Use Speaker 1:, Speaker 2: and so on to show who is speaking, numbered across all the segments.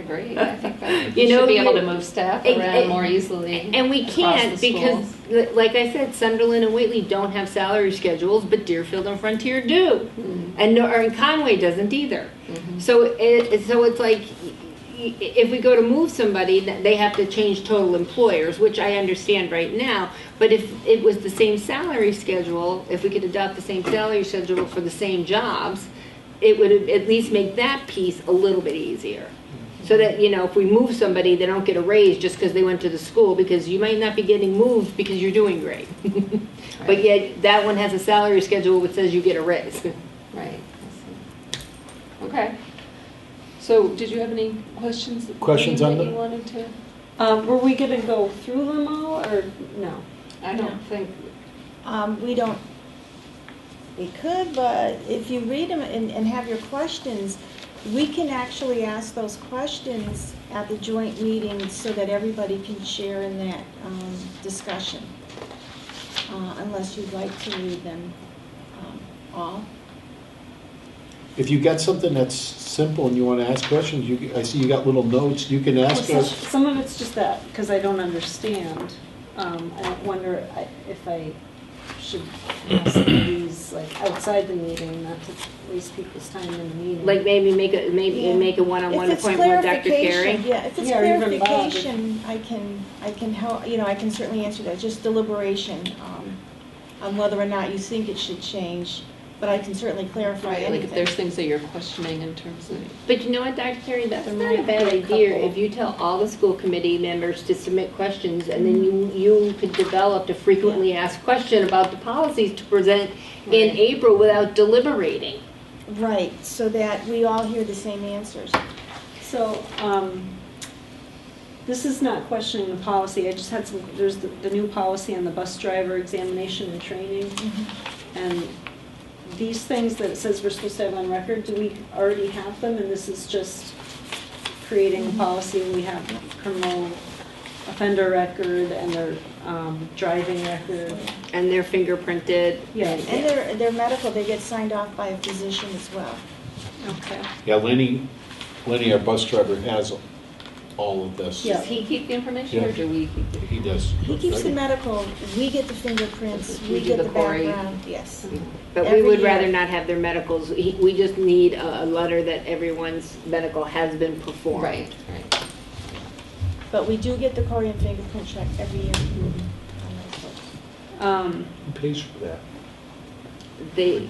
Speaker 1: agree. I think that
Speaker 2: You
Speaker 1: you
Speaker 2: know,
Speaker 1: should be able
Speaker 2: you-
Speaker 1: to move staff
Speaker 2: I- I-
Speaker 1: around more easily.
Speaker 2: And we
Speaker 1: across
Speaker 2: can't
Speaker 1: the
Speaker 2: because,
Speaker 1: schools.
Speaker 2: li- like I said, Sunderland and Whately don't have salary schedules, but Deerfield and Frontier do.
Speaker 1: Mm-hmm.
Speaker 2: And, no- or and Conway doesn't either. So it, so it's like, y- y- if we go to move somebody, th- they have to change total employers, which I understand right now. But if it was the same salary schedule, if we could adopt the same salary schedule for the same jobs, it would at least make that piece a little bit easier. So that, you know, if we move somebody, they don't get a raise just because they went to the school, because you might not be getting moved because you're doing great. But yet, that one has a salary schedule which says you get a raise.
Speaker 1: Right. I see. Okay. So did you have any questions?
Speaker 3: Questions
Speaker 1: Wayne,
Speaker 3: on
Speaker 1: that
Speaker 3: the-
Speaker 1: you wanted to?
Speaker 4: Um, were we gonna go through them all, or no?
Speaker 1: I don't think,
Speaker 5: Um, we don't, we could, but if you read them and, and have your questions, we can actually ask those questions at the joint meeting so that everybody can share in that, um, discussion. Uh, unless you'd like to read them, um, all.
Speaker 3: If you got something that's simple and you want to ask questions, you, I see you got little notes, you can ask
Speaker 4: Well,
Speaker 3: us.
Speaker 4: some- Some of it's just that, because I don't understand. Um, I wonder I- if I should ask these, like, outside the meeting, not to waste people's time in the meeting.
Speaker 2: Like maybe make a, maybe
Speaker 5: Yeah.
Speaker 2: make a one-on-one appointment with Dr.
Speaker 5: clarification,
Speaker 2: Carey.
Speaker 5: Yeah, if it's
Speaker 4: Yeah, or even Bob.
Speaker 5: clarification, I can, I can help, you know, I can certainly answer that, just deliberation um, on whether or not you think it should change, but I can certainly clarify
Speaker 1: right, like if
Speaker 5: anything.
Speaker 1: there's things that you're questioning in terms of.
Speaker 2: But you know what, Dr. Carey, that's
Speaker 1: There
Speaker 2: not a
Speaker 1: might
Speaker 2: bad
Speaker 1: be a
Speaker 2: idea
Speaker 1: couple.
Speaker 2: if you tell all the school committee members to submit questions and then you, you could develop a frequently asked question about the policies to present in
Speaker 1: Right.
Speaker 2: April without deliberating.
Speaker 5: Right, so that we all hear the same answers.
Speaker 4: So, um, this is not questioning the policy, I just had some, there's the, the new policy on the bus driver examination and training.
Speaker 1: Mm-hmm.
Speaker 4: And these things that it says we're supposed to have on record, do we already have them? And this is just creating a policy, we have criminal offender record and their, um, driving record.
Speaker 2: And they're fingerprinted.
Speaker 4: Yeah,
Speaker 5: And they're, they're medical, they get signed off by a physician as well.
Speaker 4: okay.
Speaker 3: Yeah, Lenny, Lenny, our bus driver, has all of this.
Speaker 4: Yeah.
Speaker 1: Does he keep the information or
Speaker 3: Yeah.
Speaker 1: do we keep it?
Speaker 3: He does.
Speaker 5: He keeps the
Speaker 3: Right?
Speaker 5: medical, we get the fingerprints,
Speaker 1: We
Speaker 5: we
Speaker 1: do
Speaker 5: get
Speaker 1: the
Speaker 5: the
Speaker 1: query.
Speaker 5: background, yes.
Speaker 2: But we
Speaker 5: Every
Speaker 2: would
Speaker 5: year.
Speaker 2: rather not have their medicals. He- We just need a, a letter that everyone's medical has been performed.
Speaker 1: Right, right.
Speaker 5: But we do get the query and fingerprint check every year.
Speaker 1: Mm-hmm.
Speaker 5: on those folks.
Speaker 4: Um,
Speaker 3: Who pays for that,
Speaker 2: They,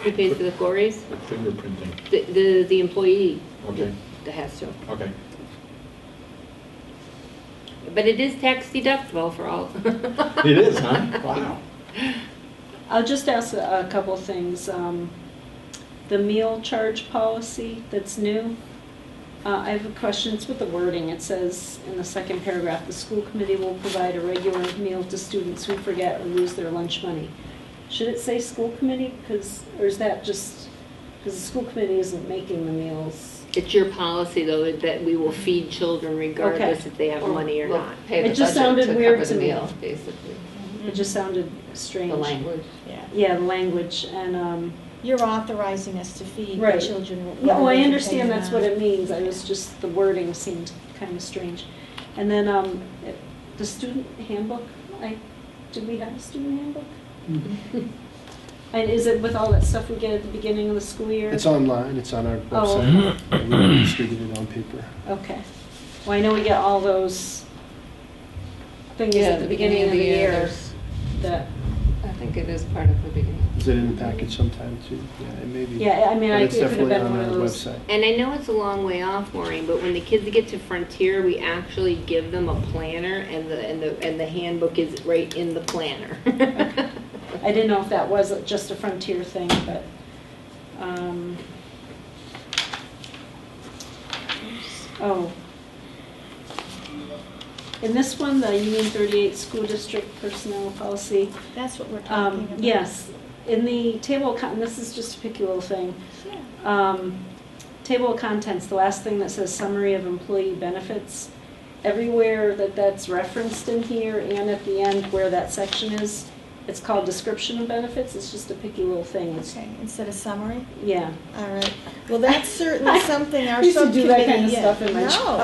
Speaker 2: who pays for the quarries?
Speaker 3: for fingerprinting?
Speaker 2: The, the, the employee
Speaker 3: Okay,
Speaker 2: that has to.
Speaker 3: okay.
Speaker 2: But it is tax deductible for all.
Speaker 3: It is, huh? Wow.
Speaker 4: I'll just ask a a couple things. Um, The meal charge policy that's new, uh, I have a question, it's with the wording. It says in the second paragraph, "The school committee will provide a regular meal to students who forget or lose their lunch money." Should it say school committee? 'Cause- or is that just, because the school committee isn't making the meals?
Speaker 2: It's your policy though, that we will feed children regardless if they have
Speaker 1: Or
Speaker 2: money or
Speaker 1: we'll
Speaker 2: not.
Speaker 1: Pay the
Speaker 4: It just
Speaker 1: budget
Speaker 4: sounded
Speaker 1: to
Speaker 4: weird
Speaker 1: cover the
Speaker 4: to me.
Speaker 1: meal, basically.
Speaker 4: It just sounded strange.
Speaker 1: Mm-hmm. The language.
Speaker 5: Um, Yeah.
Speaker 4: Yeah, the language, and, um,
Speaker 5: You're authorizing us to feed the
Speaker 4: Right.
Speaker 5: children. whether
Speaker 4: No, I
Speaker 5: they can pay
Speaker 4: understand
Speaker 5: or
Speaker 4: that's what
Speaker 5: not.
Speaker 4: it means, I was just, the wording seemed kind of strange. And then, um, it- the student handbook, I, do we have a student handbook?
Speaker 3: Mm-hmm.
Speaker 4: And is it with all that stuff we get at the beginning of the school year?
Speaker 6: It's online, it's on our
Speaker 4: Oh.
Speaker 6: website. We distribute it on paper.
Speaker 4: Okay, well, I know we get all those things at the beginning of the year
Speaker 1: there's-
Speaker 4: that,
Speaker 1: I think it is part of the beginning.
Speaker 6: Is it in the package sometime too? Yeah, it may be.
Speaker 4: yeah, I mean,
Speaker 6: But
Speaker 4: I- it
Speaker 6: it's
Speaker 4: could have
Speaker 6: definitely
Speaker 4: been
Speaker 6: on
Speaker 4: one of
Speaker 6: our
Speaker 4: those.
Speaker 6: website.
Speaker 2: And I know it's a long way off, Maureen, but when the kids get to Frontier, we actually give them a planner and the, and the, and the handbook is right in the planner.
Speaker 4: I didn't know if that was just a Frontier thing, but, um, oh. In this one, the Union 38 School District Personnel Policy,
Speaker 5: That's what we're talking
Speaker 4: um,
Speaker 5: about.
Speaker 4: yes, in the table, of con- this is just a picky little thing.
Speaker 5: Yeah.
Speaker 4: Um, Table of contents, the last thing that says summary of employee benefits, everywhere that that's referenced in here and at the end where that section is, it's called description of benefits, it's just a picky little thing, it's,
Speaker 5: Okay, instead of summary,
Speaker 4: yeah.
Speaker 5: all right. Well, that's certainly something our
Speaker 4: Used to do
Speaker 5: subcommittee.
Speaker 4: that kind of
Speaker 5: yeah.
Speaker 4: stuff in my
Speaker 5: No,
Speaker 4: job.